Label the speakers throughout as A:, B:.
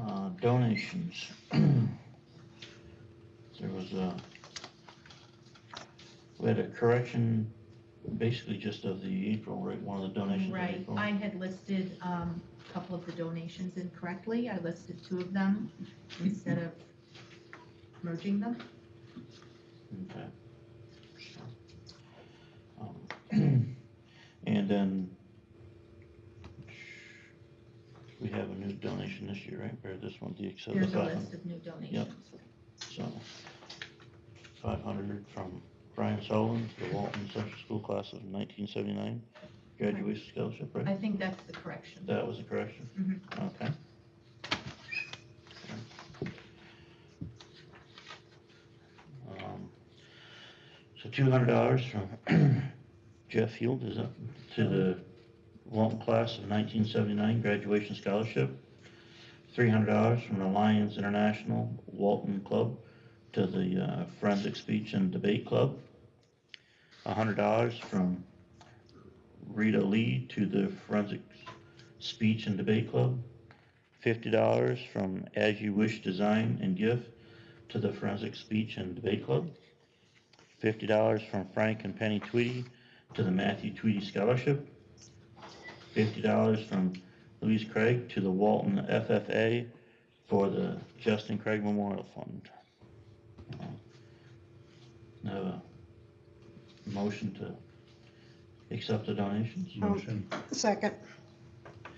A: uh, donations. There was a, we had a correction, basically just of the April rate, one of the donations. of
B: Right,
A: April.
B: I had listed um, a couple of the donations incorrectly. I listed two of them instead of merging them.
A: Okay. So, um, And then we have a new donation this year, right? Or this one, the accept the
B: There's a
A: five
B: list
A: hundred,
B: of new donations.
A: so. Five hundred from Brian Sullivan, the Walton Central School class of nineteen seventy-nine, graduation scholarship, right?
B: I think that's the correction.
A: That was a correction? Okay. Um, So two hundred dollars from Jeff Field, is up to the Walton class of nineteen seventy-nine graduation scholarship. Three hundred dollars from the Lions International Walton Club to the uh, Forensic Speech and Debate Club. hundred dollars from Rita Lee to the Forensic Speech and Debate Club, fifty dollars from As You Wish Design and Gift to the Forensic Speech and Debate Club, fifty dollars from Frank and Penny Tweedy to the Matthew Tweedy Scholarship, fifty dollars from Louise Craig to the Walton FFA for the Justin Craig Memorial Fund. Now, a uh, motion to accept the donations?
C: Motion,
D: Second,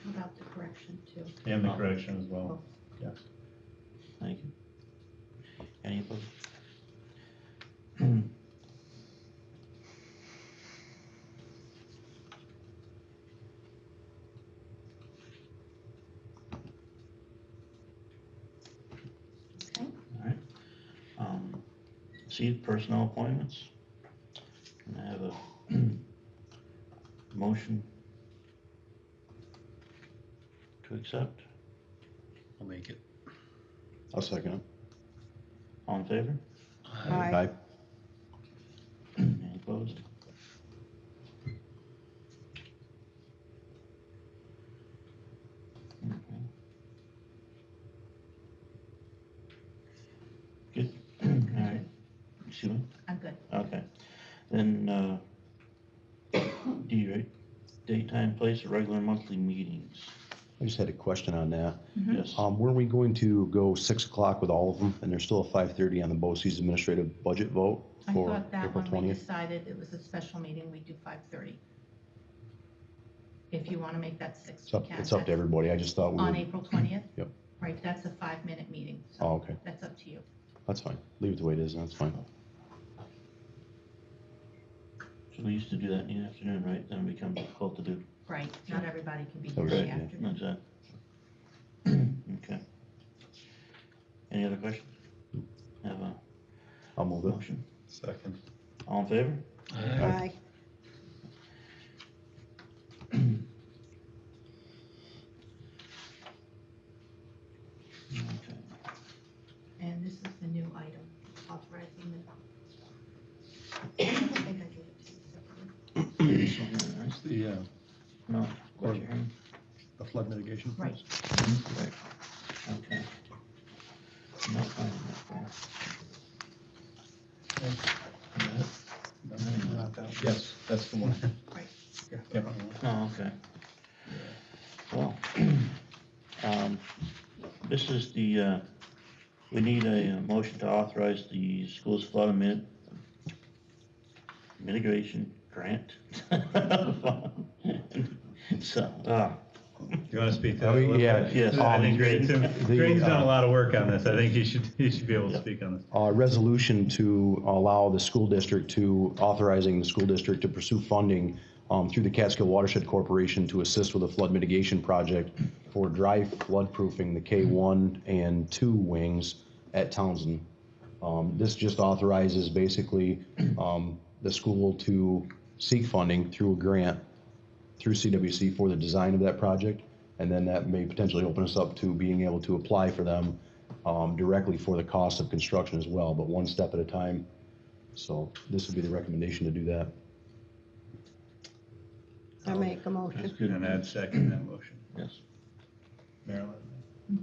B: About the correction too. Oh,
C: and
A: Oh.
C: the correction as well.
A: Thank you. Any opposed?
B: Okay.
A: Alright. Um, See personnel appointments. Can I have a motion to accept?
E: I'll make it. I'll second it.
A: All in favor?
D: Aye.
A: Any opposed? Okay. Good, all right, excuse me,
B: I'm good.
A: okay. Then, uh, D, right, daytime place of regular monthly meetings,
E: I just had a question on that.
B: Mhm.
A: yes,
E: Um, were we going to go six o'clock with all of them? And there's still a five thirty on the BOCES administrative budget vote
B: I
E: for
B: thought that
E: April
B: when we
E: twentieth?
B: decided it was a special meeting, we do 5:30. If you want to make that six,
E: It's
B: we
E: up,
B: can.
E: it's up to
B: That's
E: everybody. I just thought we
B: On
E: would,
B: April 20th?
E: Yep.
B: Right, that's a five-minute meeting. so
E: oh, okay,
B: That's up to you.
E: that's fine. Leave it the way it is, that's fine.
A: so we used to do that in the afternoon, right, then it becomes difficult to do,
B: Right, not everybody can be here
E: So
B: in
E: right,
B: the
E: yeah.
B: afternoon.
A: that's that. Okay. Any other questions? Have a
E: I'll move it.
A: motion?
C: Second.
A: All in favor?
D: aye.
A: Okay.
B: And this is the new item, authorizing the. I think I gave it to you separately.
A: This one here, right?
C: It's the, uh,
A: No, what you're hearing?
C: the flood mitigation.
B: Right.
A: Right. Okay. No, fine, no, fine.
C: Yes, that's the one.
B: Right.
C: Yep.
A: Oh, okay. Well, um, this is the, uh, we need a uh, motion to authorize the school's flood mit- mitigation grant. So, uh,
F: You want to speak to
E: Oh,
F: that a little bit?
E: yeah,
A: yes.
F: I think Greg- Tim-
E: The,
F: Greg's done
E: uh,
F: a lot of work on this. I think he should, he should be able to
A: Yeah.
F: speak on this.
E: uh, resolution to allow the school district to, authorizing the school district to pursue funding um, through the Catskill Watershed Corporation to assist with a flood mitigation project for dry floodproofing the K-1 and 2 wings at Townsend. Um, This just authorizes basically um, the school to seek funding through a grant through CWC for the design of that project, and then that may potentially open us up to being able to apply for them um, directly for the cost of construction as well, but one step at a time. So this would be the recommendation to do that.
D: I make a
A: that's
D: motion.
A: good.
F: And I'd second that motion.
A: Yes.
F: Marilyn?